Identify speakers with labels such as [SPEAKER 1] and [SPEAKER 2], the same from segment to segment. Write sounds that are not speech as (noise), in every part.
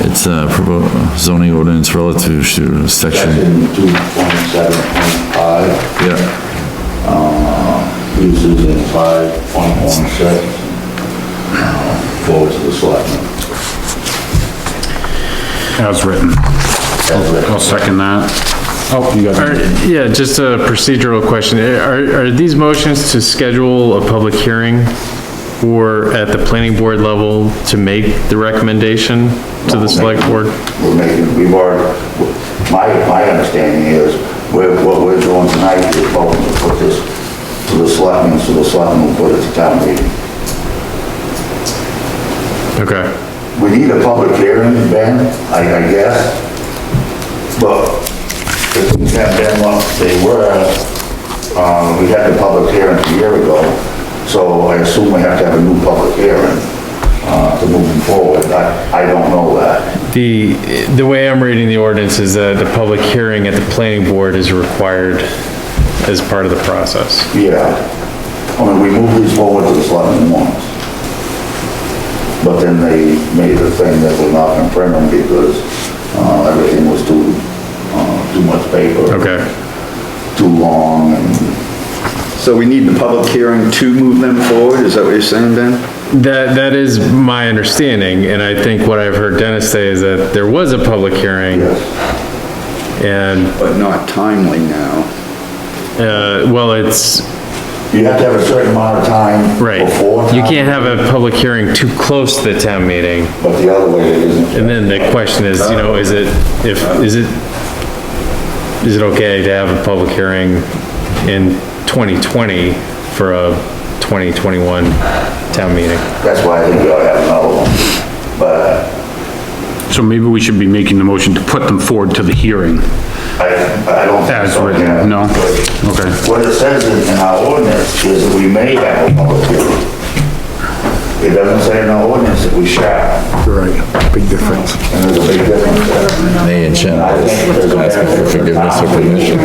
[SPEAKER 1] It's a provo- zoning ordinance relative to section,
[SPEAKER 2] Section two point seven point five, Uh,
[SPEAKER 1] yeah,
[SPEAKER 2] uses in five point one six. Forward to the selectmen.
[SPEAKER 3] As written.
[SPEAKER 2] As written.
[SPEAKER 3] I'll second that. Oh, you got it.
[SPEAKER 4] Yeah, just a procedural question. Are, are these motions to schedule a public hearing or at the planning board level to make the recommendation to the select board?
[SPEAKER 2] We're making, we've already, my, my understanding is, we're, what we're doing tonight is voting to put this to the selectmen, so the selectmen will put it to town meeting.
[SPEAKER 4] Okay,
[SPEAKER 2] We need a public hearing, Ben, I, I guess. But if we can't Ben, what they were, um, we had the public hearing a year ago, so I assume we have to have a new public hearing, uh, to move them forward. I, I don't know that.
[SPEAKER 4] the, the way I'm reading the ordinance is that the public hearing at the planning board is required as part of the process.
[SPEAKER 2] Yeah. I mean, we moved these forward to the selectmen once. But then they made the thing that we're not gonna print them because, uh, everything was too, uh, too much paper.
[SPEAKER 4] Okay,
[SPEAKER 2] Too long and
[SPEAKER 5] So we need the public hearing to move them forward, is that what you're saying, Ben?
[SPEAKER 4] that, that is my understanding, and I think what I've heard Dennis say is that there was a public hearing
[SPEAKER 2] Yes,
[SPEAKER 4] and,
[SPEAKER 5] But not timely now.
[SPEAKER 4] uh, well, it's,
[SPEAKER 2] you have to have a certain amount of time.
[SPEAKER 4] Right.
[SPEAKER 2] Before.
[SPEAKER 4] You
[SPEAKER 2] town,
[SPEAKER 4] can't have a public hearing too close to the town meeting.
[SPEAKER 2] But the other way it isn't.
[SPEAKER 4] And then the question is, you know, is it, if, is it, is it okay to have a public hearing in 2020 for a 2021 town meeting?
[SPEAKER 2] That's why I think we ought to have another one. But
[SPEAKER 3] So maybe we should be making the motion to put them forward to the hearing.
[SPEAKER 2] I, I don't. think
[SPEAKER 3] As
[SPEAKER 2] so,
[SPEAKER 3] written,
[SPEAKER 2] yeah.
[SPEAKER 3] no. Okay.
[SPEAKER 2] What it says in in our ordinance is that we may have a public hearing. It doesn't say in our ordinance that we shall,
[SPEAKER 6] Right, big difference.
[SPEAKER 2] and there's a big difference there.
[SPEAKER 1] may and shall,
[SPEAKER 2] And I think there's a.
[SPEAKER 1] asking for forgiveness or permission.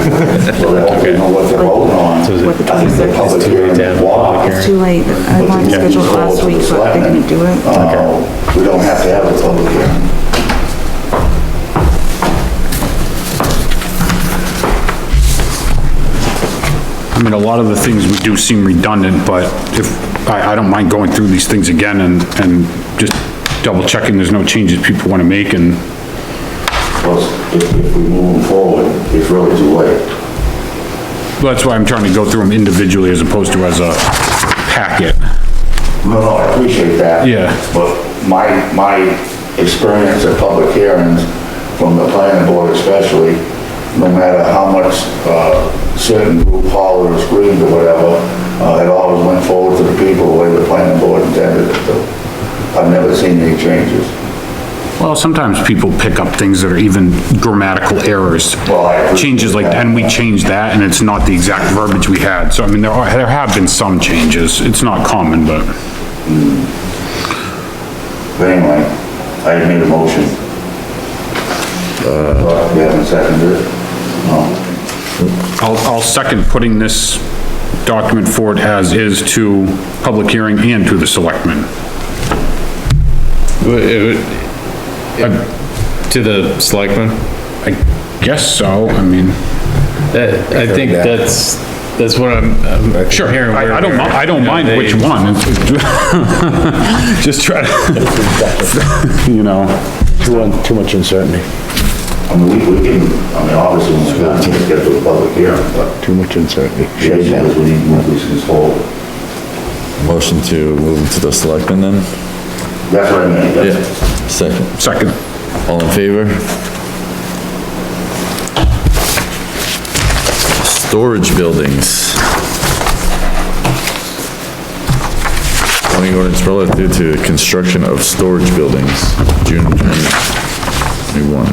[SPEAKER 2] So they don't know what they're voting on.
[SPEAKER 4] So is
[SPEAKER 7] What, the
[SPEAKER 4] it,
[SPEAKER 2] I think the
[SPEAKER 7] 26th?
[SPEAKER 2] public hearing
[SPEAKER 4] to
[SPEAKER 2] is
[SPEAKER 4] have a public
[SPEAKER 2] wide.
[SPEAKER 4] hearing.
[SPEAKER 7] It's too late. I wanted to schedule it last week, but they're gonna do it.
[SPEAKER 2] Uh, We don't have to have a public hearing.
[SPEAKER 3] I mean, a lot of the things we do seem redundant, but if, I, I don't mind going through these things again and, and just double checking there's no changes people wanna make and,
[SPEAKER 2] Because if, if we move them forward, it's really too late.
[SPEAKER 3] well, that's why I'm trying to go through them individually as opposed to as a packet.
[SPEAKER 2] No, no, I appreciate that.
[SPEAKER 3] Yeah.
[SPEAKER 2] But my, my experience at public hearings, from the planning board especially, no matter how much, uh, certain group hollered or screamed or whatever, uh, it always went forward to the people the way the planning board intended it to. I've never seen any changes.
[SPEAKER 3] Well, sometimes people pick up things that are even grammatical errors.
[SPEAKER 2] Well, I appreciate
[SPEAKER 3] Changes like, and we changed that, and it's not the exact verbiage we had, so I mean, there are, there have been some changes, it's not common, but,
[SPEAKER 2] But anyway, I had made a motion. Uh. We haven't seconded it. No.
[SPEAKER 3] I'll, I'll second putting this document forward as is to public hearing and to the selectmen.
[SPEAKER 4] uh, to the selectmen? Uh,
[SPEAKER 3] I guess so, I mean,
[SPEAKER 4] I think that's, that's what I'm, I'm
[SPEAKER 3] sure,
[SPEAKER 4] hearing.
[SPEAKER 3] I, I don't, mi- I don't mind which
[SPEAKER 4] (laughs)
[SPEAKER 3] one. it's- Just try to, you know,
[SPEAKER 6] Too much uncertainty,
[SPEAKER 2] I mean, we, we can, I mean, obviously, we're gonna have to get to a public hearing, but
[SPEAKER 6] too much uncertainty.
[SPEAKER 2] the issue is we need to move these things forward.
[SPEAKER 1] motion to move to the selectmen then?
[SPEAKER 2] That's what I mean, that's,
[SPEAKER 1] Second,
[SPEAKER 3] second.
[SPEAKER 1] all in favor? Storage buildings. Zoning ordinance relative to the construction of storage buildings, June 2021.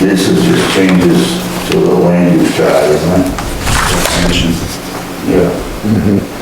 [SPEAKER 2] this is just changes to the land use chart, isn't it? Yeah.